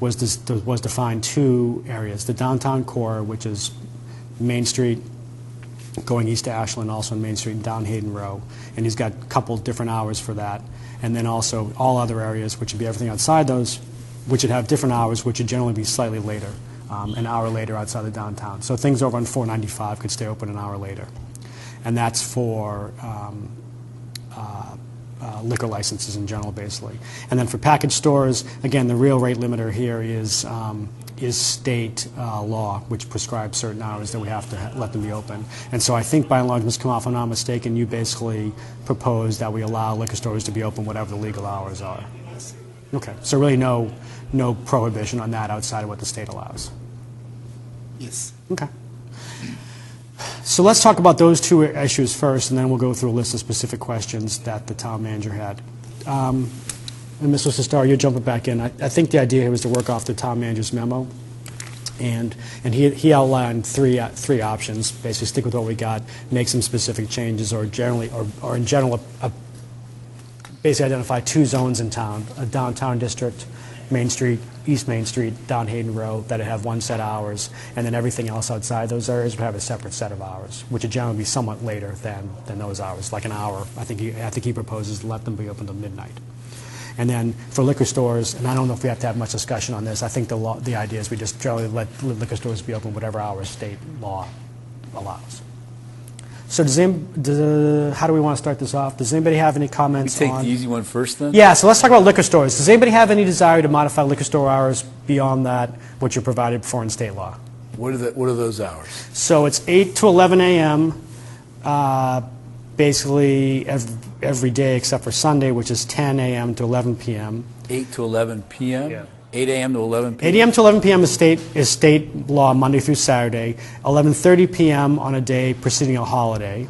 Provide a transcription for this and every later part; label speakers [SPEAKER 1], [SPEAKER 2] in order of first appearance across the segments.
[SPEAKER 1] was, this, was defined two areas, the downtown core, which is Main Street, going east to Ashland, also on Main Street, and down Hayden Row, and he's got a couple different hours for that. And then also all other areas, which would be everything outside those, which would have different hours, which would generally be slightly later, um, an hour later outside the downtown. So things over on 495 could stay open an hour later. And that's for um, uh, liquor licenses in general, basically. And then for package stores, again, the real rate limiter here is, um, is state uh, law, which prescribes certain hours that we have to ha- let them be open. And so I think by and large, Ms. Kamal, if I'm not mistaken, you basically proposed that we allow liquor stores to be open whatever the legal hours are. Okay, so really no, no prohibition on that outside of what the state allows.
[SPEAKER 2] Yes.
[SPEAKER 1] Okay. So let's talk about those two issues first, and then we'll go through a list of specific questions that the town manager had. Um, And Mr. Sestar, you're jumping back in. I I think the idea here was to work off the town manager's memo, and, and he he outlined three, uh, three options, basically stick with what we got, make some specific changes, or generally, or or in general, a- basically identify two zones in town, a downtown district, Main Street, East Main Street, down Hayden Row, that have one set of hours, and then everything else outside those areas would have a separate set of hours, which would generally be somewhat later than, than those hours, like an hour. I think he, I think he proposes to let them be open till midnight. And then for liquor stores, and I don't know if we have to have much discussion on this, I think the law, the idea is we just generally let liquor stores be open whatever hours state law allows. So does, any- does- how do we want to start this off? Does anybody have any
[SPEAKER 3] We
[SPEAKER 1] comments on?
[SPEAKER 3] take the easy one first, then?
[SPEAKER 1] Yeah, so let's talk about liquor stores. Does anybody have any desire to modify liquor store hours beyond that, which are provided for in state law?
[SPEAKER 2] What are the, what are those hours?
[SPEAKER 1] So it's 8 to 11 a.m., uh, basically ev- every day except for Sunday, which is 10 a.m. to 11 p.m.
[SPEAKER 3] 8 to 11 p.m.?
[SPEAKER 1] Yeah.
[SPEAKER 3] 8 a.m. to 11 p.m.?
[SPEAKER 1] 8 a.m. to 11 p.m. is state, is state law Monday through Saturday, 11:30 p.m. on a day preceding a holiday,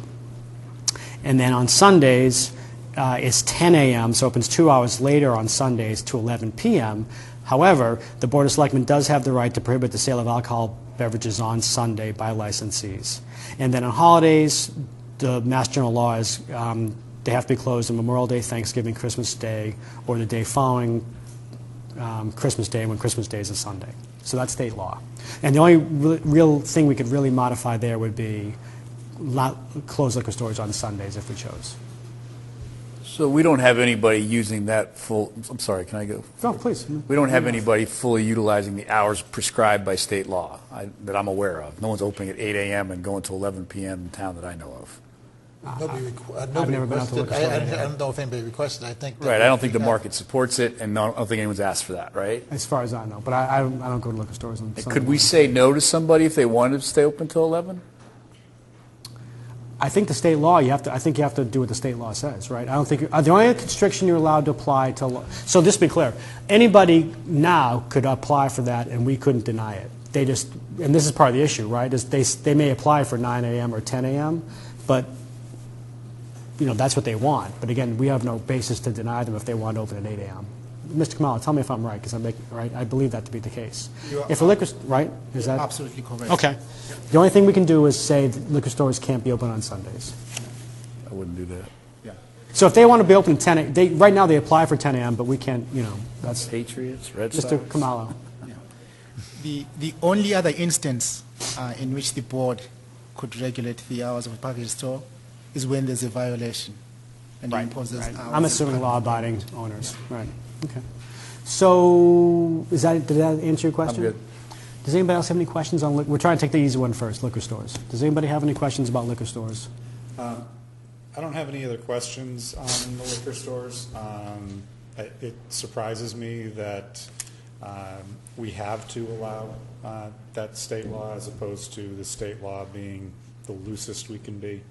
[SPEAKER 1] and then on Sundays uh, it's 10 a.m. So it opens two hours later on Sundays to 11 p.m. However, the Board of Selectmen does have the right to prohibit the sale of alcohol beverages on Sunday by licensees, and then on holidays, the Mass General Law is. Um, they have to be closed on Memorial Day, Thanksgiving, Christmas Day, or the day following um, Christmas Day when Christmas Day is a Sunday. So that's state law. And the only re- real thing we could really modify there would be lo- close liquor stores on Sundays if we chose.
[SPEAKER 3] So we don't have anybody using that full, I'm sorry, can I go?
[SPEAKER 1] Oh, please.
[SPEAKER 3] We don't have anybody fully utilizing the hours prescribed by state law I- that I'm aware of. No one's opening at 8 a.m. and going to 11 p.m. in town that I know of.
[SPEAKER 2] Nobody requ- uh,
[SPEAKER 1] Ah.
[SPEAKER 2] nobody
[SPEAKER 1] never been out to
[SPEAKER 2] requested.
[SPEAKER 1] look at
[SPEAKER 2] I, I
[SPEAKER 1] store, yeah.
[SPEAKER 2] I don't know if anybody requested. I think. that-
[SPEAKER 3] Right, I don't think the market supports it, and no- I don't think anyone's asked for that, right?
[SPEAKER 1] As far as I know, but I, I, don't, I don't go to liquor stores on Sunday
[SPEAKER 3] Could we
[SPEAKER 1] morning.
[SPEAKER 3] say no to somebody if they wanted to stay open till 11?
[SPEAKER 1] I think the state law, you have to, I think you have to do what the state law says, right? I don't think, you- uh, the only constriction you're allowed to apply to, lo- so just to be clear, anybody now could apply for that and we couldn't deny it. They just, and this is part of the issue, right, is they, s- they may apply for 9 AM or 10 AM, but, you know, that's what they want. But again, we have no basis to deny them if they want to open at 8 AM. Mr. Kamala, tell me if I'm right, because I'm making, right, I believe that to be the case.
[SPEAKER 2] You are-
[SPEAKER 1] If a liquor, s- right, is that?
[SPEAKER 2] Absolutely correct.
[SPEAKER 1] Okay. The only thing we can do is say that liquor stores can't be open on Sundays.
[SPEAKER 3] I wouldn't do that.
[SPEAKER 1] So if they want to be open at 10, a- they, right now they apply for 10 a.m., but we can't, you know, that's,
[SPEAKER 3] Patriots, Red Sox?
[SPEAKER 1] Mr. Kamalo.
[SPEAKER 4] The, the only other instance uh, in which the board could regulate the hours of a package store is when there's a violation and impose those
[SPEAKER 1] Right.
[SPEAKER 4] hours.
[SPEAKER 1] I'm assuming law-abiding owners, right, okay. So, is that, did that answer your question?
[SPEAKER 3] good.
[SPEAKER 1] Does anybody else have any questions on, li- we're trying to take the easy one first, liquor stores. Does anybody have any questions about liquor stores?
[SPEAKER 5] I don't have any other questions on the liquor stores. Um, I- It surprises me that um, we have to allow uh, that state law as opposed to the state law being the loosest we can be.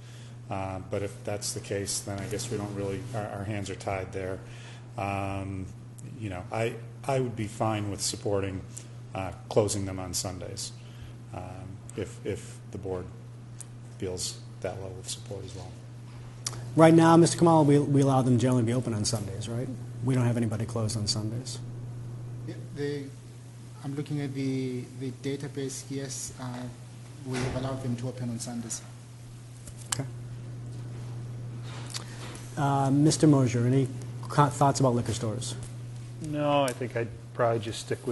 [SPEAKER 5] Uh, But if that's the case, then I guess we don't really, our our hands are tied there. Um, You know, I, I would be fine with supporting uh, closing them on Sundays um, if, if the board feels that level of support as well.
[SPEAKER 1] Right now, Mr. Kamalo, we, we allow them generally to be open on Sundays, right? We don't have anybody closed on Sundays.
[SPEAKER 4] The, I'm looking at the, the database, yes, uh, we have allowed them to open on Sundays.
[SPEAKER 1] Okay. Uh, Mr. Mosier, any co- thoughts about liquor stores?
[SPEAKER 6] No, I think I'd probably just stick with